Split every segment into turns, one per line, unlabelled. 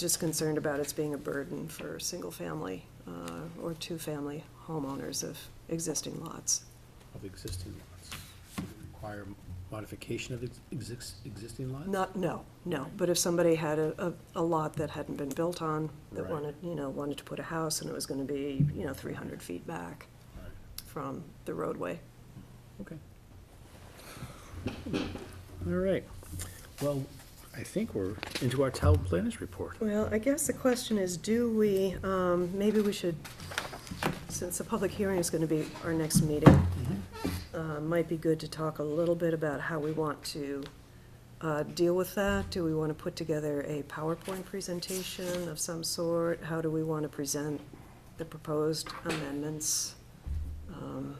just concerned about its being a burden for single-family uh, or two-family homeowners of existing lots.
of existing lots. Require modification of ex- exis- existing lots?
Not, no, no, but if somebody had a, a a lot that hadn't been built on, that
Right.
wanted, you know, wanted to put a house and it was gonna be, you know, three hundred feet back
Right.
from the roadway.
Okay. All right. Well, I think we're into our town planners report.
Well, I guess the question is, do we, um, maybe we should, since the public hearing is gonna be our next meeting,
Mm-hmm.
uh, might be good to talk a little bit about how we want to uh, deal with that. Do we wanna put together a PowerPoint presentation of some sort? How do we wanna present the proposed amendments? Um,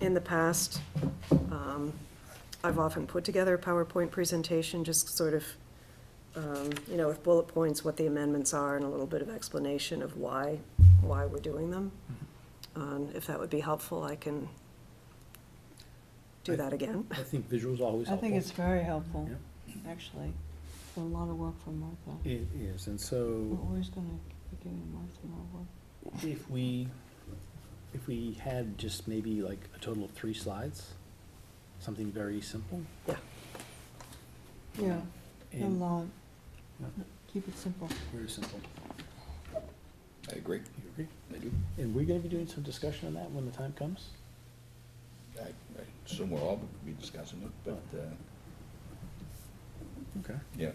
In the past, um, I've often put together a PowerPoint presentation, just sort of, um, you know, with bullet points, what the amendments are, and a little bit of explanation of why, why we're doing them. Um, If that would be helpful, I can do that again.
I think visuals always
I
helpful.
think it's very helpful, actually. It's a lot of work for Martha.
It is, and so
We're always gonna be giving Martha more work.
if we, if we had just maybe like a total of three slides, something very simple.
Yeah, not
and-
long.
Yeah.
Keep it simple.
Very simple.
I agree,
You agree?
I do.
And we're gonna be doing some discussion on that when the time comes?
I, I assume we'll all be discussing it, but, uh,
Mm-hmm.
Okay.
yeah.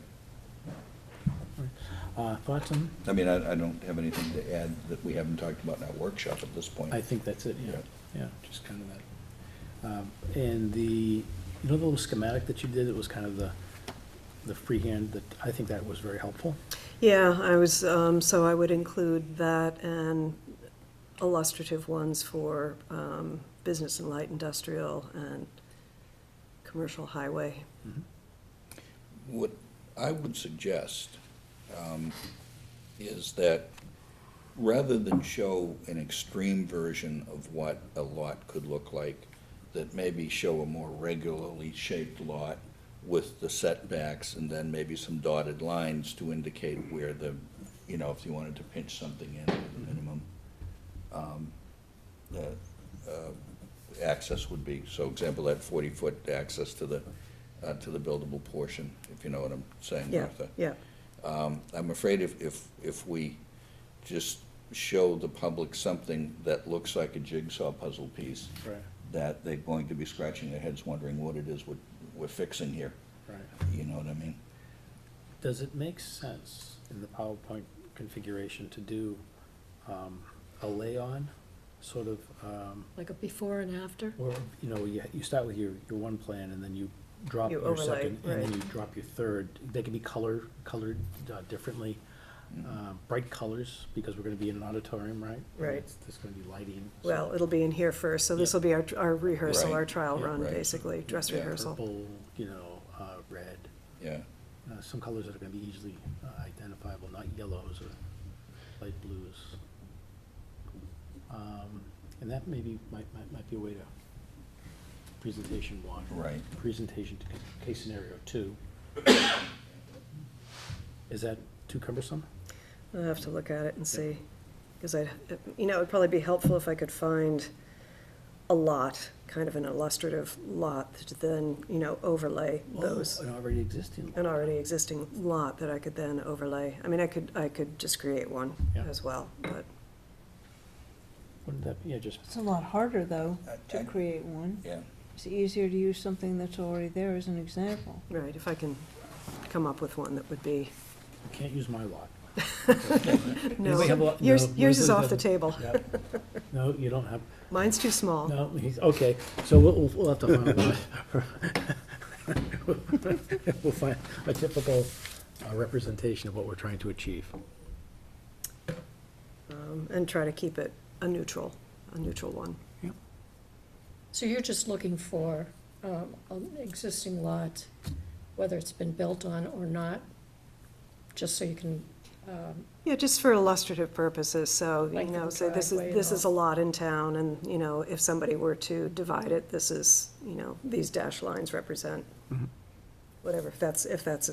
Uh, thoughts on,
I mean, I, I don't have anything to add that we haven't talked about in our workshop at this point.
I think that's it, yeah,
Yeah.
yeah, just kind of that. Um, And the, you know the little schematic that you did, it was kind of the, the freehand, that, I think that was very helpful.
Yeah, I was, um, so I would include that and illustrative ones for um, business and light industrial and commercial highway.
What I would suggest um, is that rather than show an extreme version of what a lot could look like, that maybe show a more regularly shaped lot with the setbacks and then maybe some dotted lines to indicate where the, you know, if you wanted to pinch something in at the minimum, um, the uh, access would be. So example, that 40-foot access to the, uh, to the buildable portion, if you know what I'm saying,
Yeah,
Martha.
yeah.
Um, I'm afraid if, if, if we just show the public something that looks like a jigsaw puzzle piece,
Right,
that they're going to be scratching their heads wondering what it is we're, we're fixing here,
right.
you know what I mean?
Does it make sense in the PowerPoint configuration to do um, a lay-on, sort of, um,
Like a before and after?
or, you know, you, you start with your, your one plan and then you drop
You
your
overlay,
second, and then
right.
you drop your third. They can be color, colored uh, differently,
Mm-hmm.
uh, bright colors, because we're gonna be in an auditorium, right? And
Right.
it's- There's gonna be lighting. so
Well, it'll be in here first, so this will be our, our rehearsal, our
Right.
trial
Yeah,
run,
right.
basically, dress
Yeah.
rehearsal.
Purple, you know, uh, red,
Yeah,
uh, some colors that are gonna be easily uh, identifiable, not yellows or light blues. Um, And that maybe might, might, might be a way to, presentation one.
right.
presentation to ca- case scenario two. Is that too cumbersome?
I'll have to look at it and see, because I, you know, it'd probably be helpful if I could find a lot, kind of an illustrative lot, to then, you know, overlay
Oh,
those,
An already existing
an already existing lot that I could then overlay. I mean, I could, I could just create one
Yeah.
as well, but,
Wouldn't that, be yeah, just,
It's a lot harder, though,
I- I-
to create one.
Yeah,
It's easier to use something that's already there as an example.
right, if I can come up with one that would be,
you can't use my lot.
no,
Anybody have a lot?
yours,
No,
yours is
Leslie
off the
doesn't.
table.
Yeah. No, you don't have,
Mine's too small.
no, he's, okay, so we'll, we'll- we'll have to find one. We'll find a typical uh, representation of what we're trying to achieve.
um, and try to keep it a neutral, a neutral one.
So you're just looking for um, an existing lot, whether it's been built on or not, just so you can, um,
Yeah, just for illustrative purposes, so, you
Length of
know,
the
say this
driveway
is,
and
this is a
all.
lot in town, and, you know, if somebody were to divide it, this is, you know, these dash lines represent whatever, if that's, if that's